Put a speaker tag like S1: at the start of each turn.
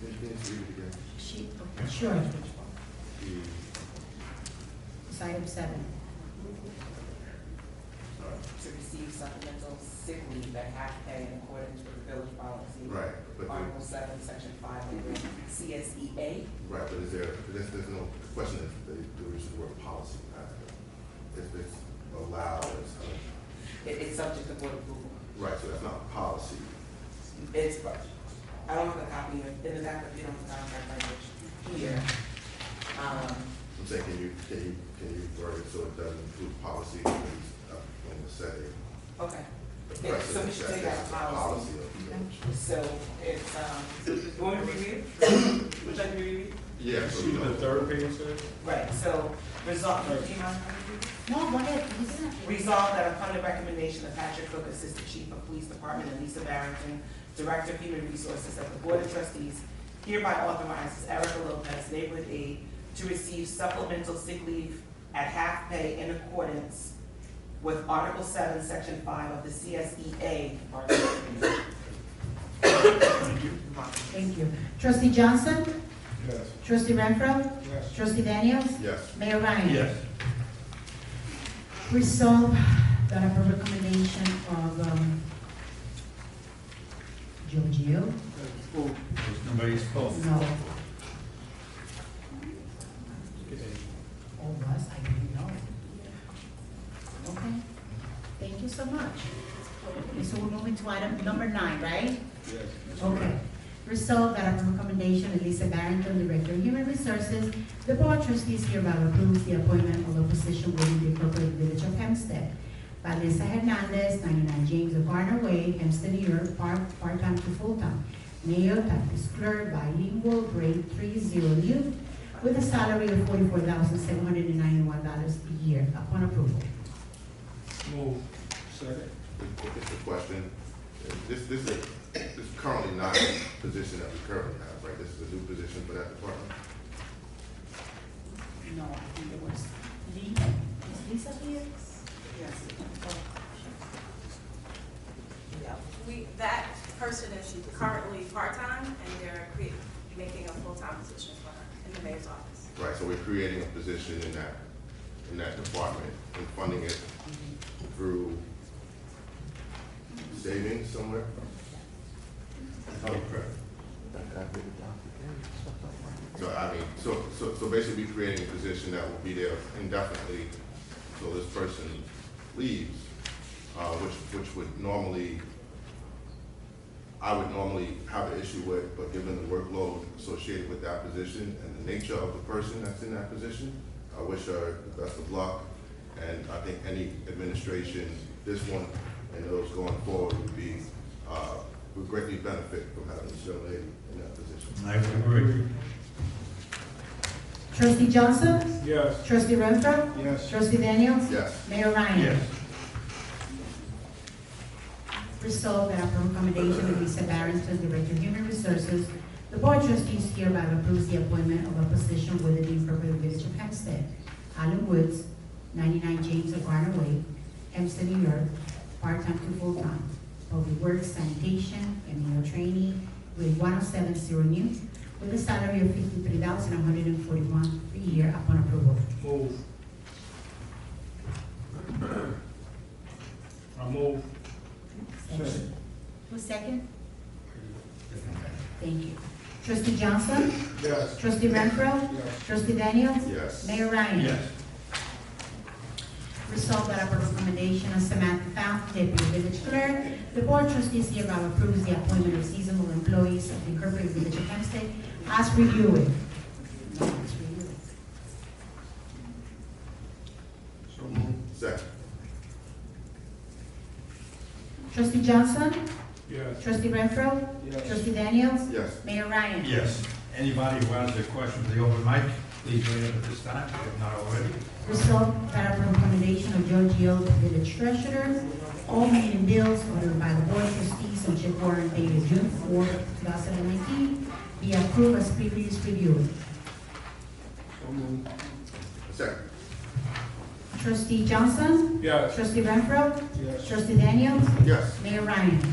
S1: Can't read again.
S2: Sheet,
S3: Sure.
S1: The-
S2: it's item seven.
S1: sorry.
S4: to receive supplemental sick leave at half pay in accordance with village policy.
S1: Right, but the-
S4: Article seven, section five, under CSEA.
S1: Right, but is there, there's, there's no question if they, there is the word policy, not, if it's allowed, it's, uh,
S4: It, it's subject to board approval.
S1: right, so that's not policy.
S4: It's, I don't have a copy of, in the back of, you know, the contract language here. Um,
S1: I'm saying, can you, can you, can you word it so it doesn't include policy, when it's up when the setting?
S4: okay.
S1: the
S4: Yeah, so we should
S1: precedent
S4: take
S1: that
S4: out
S1: that's the
S4: policy.
S1: of the village.
S4: So it's, um, want me to review? Would you like me to review?
S1: Yeah, so
S5: See
S1: we
S5: the
S1: don't,
S5: third page, sir?
S4: Right, so resolve, do you mind?
S2: No, go ahead, he's not.
S4: Resolved that upon the recommendation of Patrick Cook, Assistant Chief of Police Department, and Lisa Barrington, Director of Human Resources, that the Board of Trustees hereby authorizes Erica Lopez, neighborhood aide, to receive supplemental sick leave at half pay in accordance with Article seven, Section five of the E CSEA.
S2: Thank you. Trustee Johnson?
S5: Yes.
S2: Trustee Renfro?
S5: Yes.
S2: Trustee Daniels?
S1: yes,
S2: Mayor Ryan?
S5: Yes.
S2: Resolve that upon recommendation of um, Joe Gio,
S5: Nobody's phone.
S2: no, all of us, I didn't know. Okay, thank you so much. Okay, So we're moving to item number nine, right?
S5: Yes.
S2: Okay. Resolved that upon recommendation of Lisa Barrington, Director of Human Resources, the Board of Trustees hereby approves the appointment of a position within the appropriate village of Hempstead. Vanessa Hernandez, 99 James O'Connor Way, Hempstead, New York, part, part-time to full-time. Male, practice clerk, bilingual, grade 30 youth, with a salary of $44,791 a year upon approval.
S5: Move. Second.
S1: it's a question, this, this is, this is currently not a position that we currently have, right? This is a new position for that department?
S2: No, I think it was Lee, is Lisa here?
S6: We, that person is currently part-time, and they're crea- making a full-time position for her in the mayor's office.
S1: Right, so we're creating a position in that, in that department and funding it through savings somewhere? Okay. So I mean, so, so, so basically we're creating a position that will be there indefinitely till this person leaves, uh, which, which would normally, I would normally have an issue with, but given the workload associated with that position and the nature of the person that's in that position, I wish her the best of luck. And I think any administration, this one and those going forward would be, uh, would greatly benefit from having this young lady in that position.
S5: I agree.
S2: Trustee Johnson?
S5: Yes.
S2: Trustee Renfro?
S5: Yes.
S2: Trustee Daniels?
S1: Yes,
S2: Mayor Ryan? Resolved that upon recommendation of Lisa Barrington, Director of Human Resources, the Board of Trustees hereby approves the appointment of a position within the appropriate village of Hempstead, Allen Woods, 99 James O'Connor Way, Hempstead, New York, part-time to full-time, public works, sanitation, and meal training, grade 1070 new, with a salary of 53141 per year upon approval.
S5: Move. I move. Second.
S2: Who's second? Thank you. Trustee Johnson?
S5: Yes.
S2: Trustee Renfro?
S5: Yes.
S2: Trustee Daniels?
S1: yes.
S2: Mayor Ryan?
S5: Yes.
S2: Resolved that upon recommendation of Samantha Fount, Deputy Village Clerk, the Board of Trustees hereby approves the appointment of seasonal employees of the Incorporated Village of Hempstead as reviewed. No, as reviewed.
S5: So move.
S1: Second,
S2: Trustee Johnson?
S5: Yes.
S2: Trustee Renfro? Trustee Daniels?
S1: yes.
S2: Mayor Ryan?
S7: Yes. Anybody who has a question for the open mic, please raise it at this time, if not already.
S2: Resolved that upon recommendation of Joe Gio, village treasurer, all meeting bills ordered by the board of trustees on check warrant dated June 4, 2019, be approved as previously reviewed.
S5: So move.
S1: Second,
S2: Trustee Johnson?
S5: Yes.
S2: Trustee Renfro?
S5: Yes.
S2: Trustee Daniels?
S1: yes.
S2: Mayor Ryan?